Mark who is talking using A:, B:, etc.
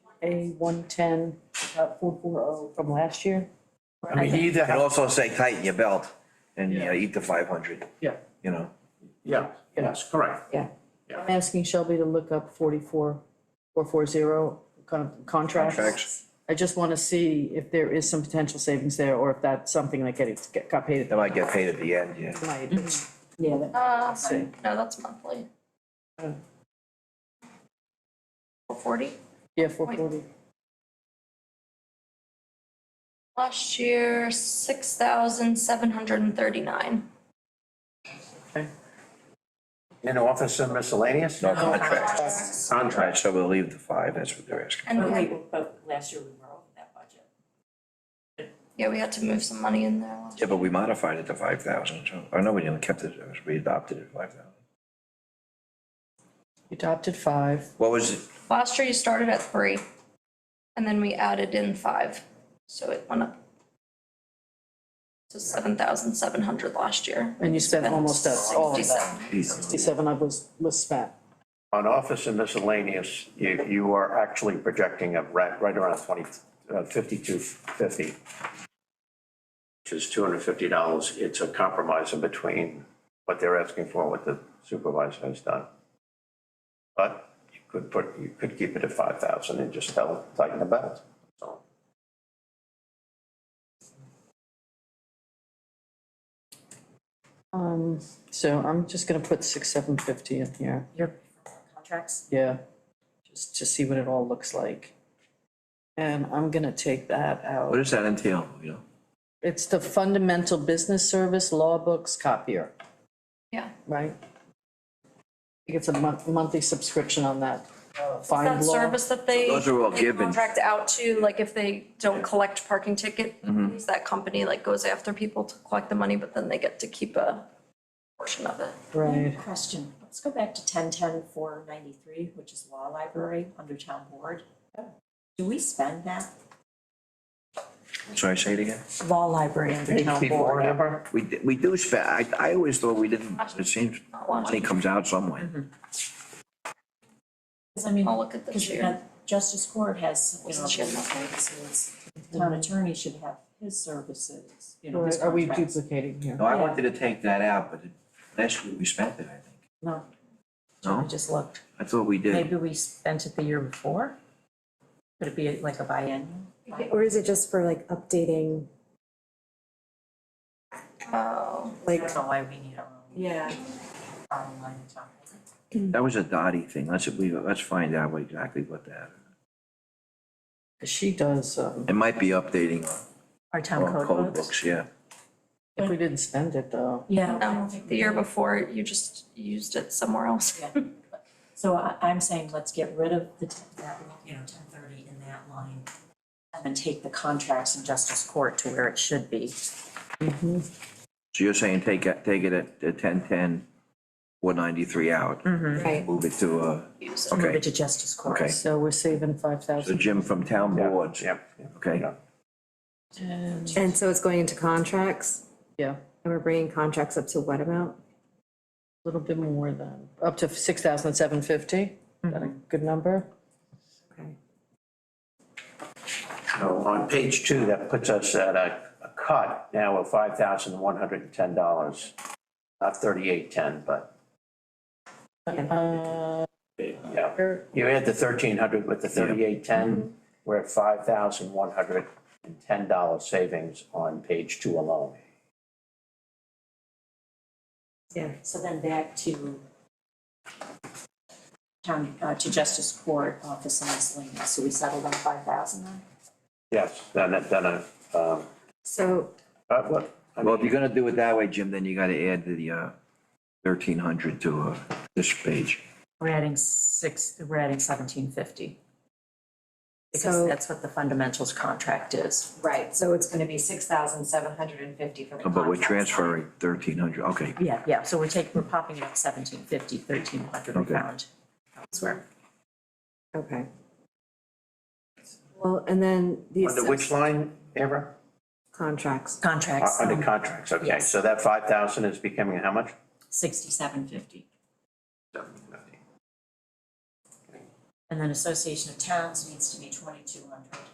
A: A one ten, four four oh from last year.
B: I mean, he either,
C: Could
B: ha-
C: also say tighten your belt and, you know, eat the five hundred,
B: yeah,
C: you know?
B: yeah, yes, correct.
A: Yeah.
B: Yeah.
A: I'm asking Shelby to look up forty-four, four four zero contracts.
C: Contracts.
A: I just wanna see if there is some potential savings there, or if that's something that get, get- got paid at
C: They might get paid at the end, yeah.
A: the night. Mm-hmm. Yeah, that-
D: Uh,
A: see.
D: no, that's monthly.
A: Oh.
D: Four forty.
A: yeah, four forty.
D: Last year, six thousand seven hundred and thirty-nine.
B: In office and miscellaneous?
C: No contracts.
B: Contract.
C: So we'll leave the five, that's what they're asking.
D: And we had,
E: but Oh, last year we were over that budget.
D: yeah, we had to move some money in there last
C: Yeah, but we modified it to five thousand, so, or no, we didn't, we kept it, we adopted it five thousand.
A: You adopted five.
C: What was it?
D: Last year you started at three, and then we added in five, so it went up to seven thousand seven hundred last year.
A: And you spent almost that- all of that.
D: 67.
A: Sixty-seven I was, was spent.
B: On office and miscellaneous, you, you are actually projecting a right, right around twenty, uh, fifty-two fifty. Which is two hundred fifty dollars. It's a compromise in between what they're asking for, and what the supervisor has done. But you could put, you could keep it at five thousand and just tell, tighten the belt, so.
A: Um, so I'm just gonna put six, seven fifty in here,
E: Your contracts?
A: yeah, just to see what it all looks like. And I'm gonna take that
C: What
A: out.
C: does that entail, you know?
A: It's the fundamental business service, law books, copier,
D: Yeah,
A: right? He gets a month, monthly subscription on that, uh,
D: that
A: find law.
D: service that they.
C: Those are all
D: they
C: given.
D: Contract out to, like if they don't collect parking ticket,
C: Mm-hmm.
D: that company like goes after people to collect the money, but then they get to keep a portion of it.
A: Right,
E: Question, let's go back to ten ten four ninety-three, which is law library under town board. Do we spend that?
C: Sorry, say it again?
E: Law library under town
B: Before,
E: board.
B: remember?
C: We, di- we do spend, I, I always thought we didn't, it seems money comes out somewhere.
E: Cause I mean,
D: I'll look at the
E: cause you
D: chair.
E: got justice court has, you know,
D: Wasn't she in
E: those
D: that?
E: services. The Town attorney should have his services, you know, his
A: Right, are we
E: contracts.
A: duplicating here?
C: No, I wanted to take that out, but it- last year we spent it, I think.
E: No, I
C: No,
E: just looked.
C: I thought we did.
E: Maybe we spent it the year before? Could it be like a biennial?
F: Or is it just for like updating,
D: Oh,
E: I
F: like,
E: don't know why we need our own.
F: yeah,
E: our own line of talk.
C: That was a Dottie thing. Let's, we, let's find out what exactly what that.
A: She does, um,
C: It might be updating
E: Our town
C: on
E: code
C: code
E: books.
C: books, yeah.
A: if we didn't spend it though,
E: Yeah. I
D: no,
E: don't think
D: the
E: we
D: year
E: do.
D: before, you just used it somewhere else.
E: Yeah. So I, I'm saying let's get rid of the, t- that, you know, ten thirty in that line. And then take the contracts in justice court to where it should be.
C: So you're saying take, it- take it at ten ten, four ninety-three out,
F: right,
C: move it to, uh,
D: Use it.
E: Mm-hmm. Move
C: okay.
E: it to justice court.
C: Okay.
A: so we're saving five
C: So
A: thousand.
C: Jim from town
B: Yeah,
C: boards.
B: yeah, yeah,
C: Okay,
B: yeah.
F: and so it's going into contracts,
A: Yeah, a
F: and we're bringing contracts up to what amount?
A: little bit more than, up to six thousand seven fifty, is that a good number?
F: Okay.
B: So on page two, that puts us at a, a cut now of five thousand one hundred and ten dollars. Not thirty-eight ten, but,
A: Uh,
B: yeah.
A: where-
B: You add the thirteen hundred with the thirty-eight ten, we're at five thousand one hundred and ten dollar savings on page two alone.
F: Yeah,
E: So then back to town, uh, to justice court office and miscellaneous, so we settled on five thousand then?
B: Yes, then, it- then, uh, um,
F: so,
B: but what, I
C: well, if
B: mean,
C: you're gonna do it that way, Jim, then you gotta add the, uh, thirteen hundred to, uh, this page.
E: We're adding six, we're adding seventeen fifty. Because
F: So-
E: that's what the fundamentals contract is.
F: right, so it's gonna be six thousand seven hundred and fifty for the
C: Oh, But we're
F: contracts.
C: transferring thirteen hundred, okay.
E: Yeah, yeah, so we're taking, we're popping it up seventeen fifty, thirteen hundred
C: Okay.
E: pound elsewhere.
F: Okay. Well, and then these
B: under which line, Amber?
F: contracts,
B: Uh,
E: Contracts, um,
B: Under contracts, okay,
E: yes.
B: so that five thousand is becoming how much?
E: sixty-seven fifty. And then Association of Towns needs to be twenty-two hundred.